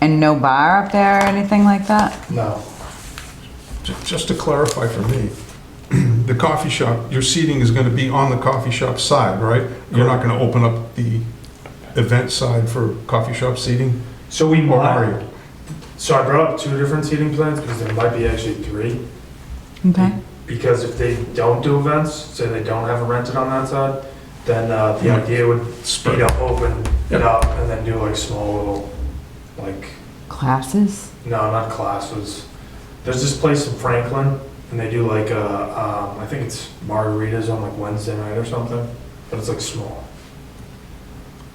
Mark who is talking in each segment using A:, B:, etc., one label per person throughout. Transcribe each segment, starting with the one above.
A: And no bar up there or anything like that?
B: No.
C: Ju- Just to clarify for me, the coffee shop, your seating is going to be on the coffee shop side, right? You're not going to open up the event side for coffee shop seating?
B: So we
C: Or are you?
B: mod, so I brought up two different seating plans, because there might be actually three.
A: Okay.
B: Because if they don't do events, say they don't have it rented on that side, then uh, the
C: Yeah.
B: idea would be
C: Spread.
B: to open it
C: Yeah.
B: up and then do like small little, like,
A: Classes?
B: no, not classes. There's this place in Franklin, and they do like, uh, um, I think it's margaritas on like Wednesday night or something, but it's like small.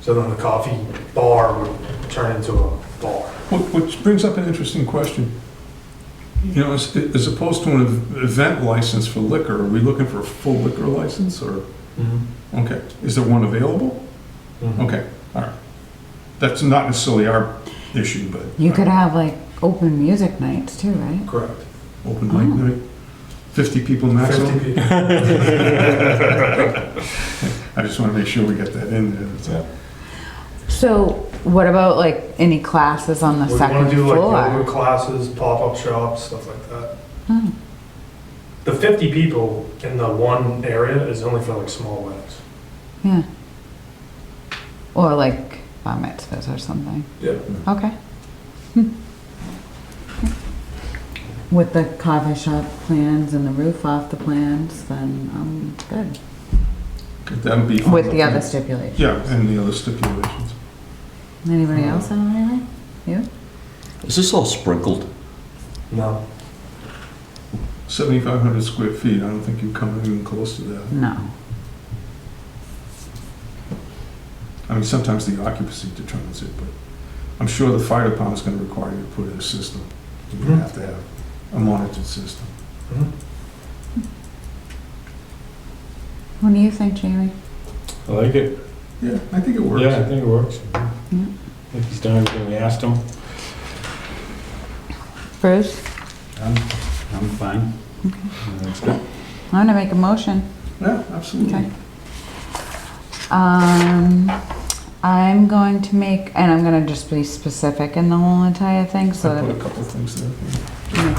B: So then the coffee bar would turn into a bar.
C: Wh- Which brings up an interesting question. You know, as as opposed to an ev- event license for liquor, are we looking for a full liquor license or, Mm-hmm. okay, is there one available? Okay, all right. That's not necessarily our issue, but.
A: You could have like open music nights too, right?
B: Correct.
C: Open mic
A: Oh.
C: night, 50 people maximum?
B: 50 people.
C: I just want to make sure we get that in there. That's all.
A: So what about like any classes on the
B: We
A: second
B: want to do like
A: floor?
B: yoga classes, pop-up shops, stuff like that.
A: Oh.
B: The 50 people in the one area is only for like small weddings.
A: Yeah. Or like bar mitzvahs or something?
B: Yeah.
A: Okay. Hmm. With the coffee shop plans and the roof off the plans, then I'm good.
C: That would be.
A: With the other stipulations.
C: Yeah, and the other stipulations.
A: Anybody else have anything?
D: Is this all sprinkled?
B: No.
C: 7,500 square feet, I don't think you come even close to that.
A: No.
C: I mean, sometimes the occupancy determines it, but I'm sure the fire department's going to require you to put in a system. You're
E: Hmm.
C: going to have to have a monitored system.
A: What do you think, Jamie?
E: I like it.
C: Yeah, I think it works.
E: Yeah, I think it works. I
A: Yeah.
E: think he's done everything we asked him.
A: Bruce?
E: I'm, I'm fine.
B: Mm-hmm.
E: That's good.
A: I'm gonna make a motion.
C: Yeah, absolutely.
A: Okay. Um, I'm going to make, and I'm gonna just be specific in the whole entire thing, so
C: I
A: that
C: put a couple things there.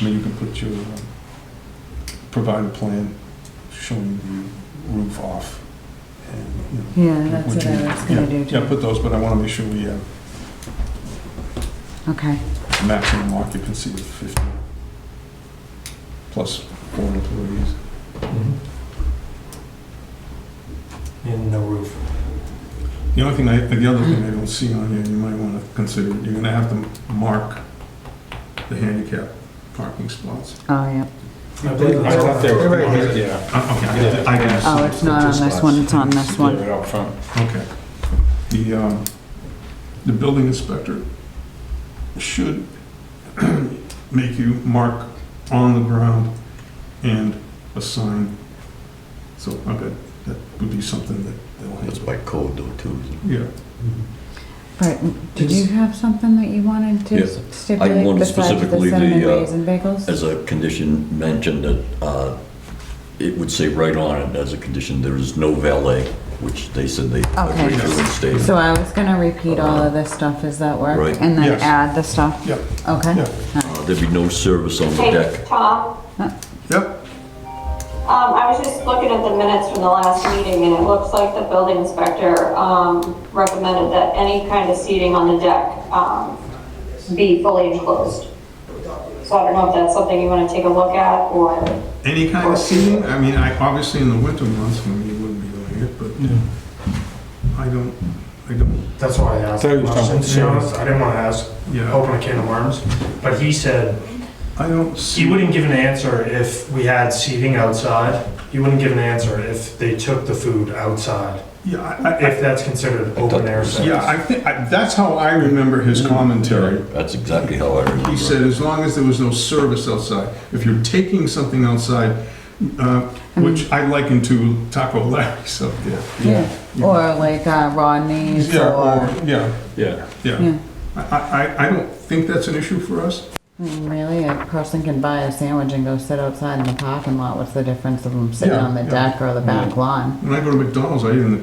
C: I mean, you can put your, um, provide a plan showing the roof off and, you know.
A: Yeah, that's
C: would
A: what I
C: you-
A: was gonna
C: yeah,
A: do
C: Yeah,
A: too.
C: put those, but I want to make sure we have
A: Okay,
C: maximum occupancy of 50, plus four employees.
B: And no roof.
C: The only thing I, the other thing I don't see on here, you might want to consider, you're going to have to mark the handicap parking spots.
A: oh, yeah.
B: I
E: I thought they were, yeah.
C: Uh, Okay, I didn't- I didn't see.
A: Oh, it's not on this one, it's on this
E: Leave
A: one.
E: it out front.
C: Okay. The, um, the building inspector should make you mark on the ground and assign. So, okay, that would be something that they'll
D: That's
C: handle.
D: by code though, too. isn't it?
C: Yeah,
B: Mm-hmm.
A: But did you have something that you wanted
D: Yes.
A: to stipulate
D: wanted
A: besides the
D: specifically
A: cinnamon
D: the, uh,
A: raisin bagels?
D: As a condition mentioned that uh, it would say right on it, as a condition, there is no valet, which they said they
A: Okay.
D: agreed to and stated.
A: So I was gonna repeat all of this stuff, as that work?
D: Right.
A: And then
C: Yes.
A: add the stuff?
C: Yep.
A: Okay.
C: yeah,
D: Uh, There'd be no service on the
F: Hey,
D: deck.
F: Tom,
C: yep,
F: um, I was just looking at the minutes from the last meeting, and it looks like the building inspector, um, recommended that any kind of seating on the deck, um, be fully enclosed. So I don't know if that's something you wanna take a look at, or,
C: any kind of seating, I mean, I, obviously in the winter months, when you wouldn't be doing it, but I don't, I don't,
B: That's why I asked.
E: I thought you
B: the
E: were talking
B: question, To be
E: about-
B: honest, I didn't want to ask,
C: yeah,
B: open a can of worms, but he said,
C: I don't
B: He
C: see.
B: wouldn't give an answer if we had seating outside. He wouldn't give an answer if they took the food outside,
C: Yeah, I, I,
B: if that's considered open air sex.
C: yeah, I think, I- that's how I remember his commentary.
D: That's exactly how I remember.
C: He said, as long as there was no service outside. If you're taking something outside, uh, which I liken to Taco Larry's up there.
A: Yeah.
C: Yeah.
A: Or like uh, Rodney's
C: Yeah,
A: or,
C: or, yeah,
E: Yeah.
C: yeah.
A: yeah,
C: I, I, I don't think that's an issue for us.
A: I mean, really, a person can buy a sandwich and go sit outside in the parking lot. What's the difference of them sitting
C: Yeah,
A: on the
C: yeah.
A: deck or the back lawn?
C: When I go to McDonald's, I eat in the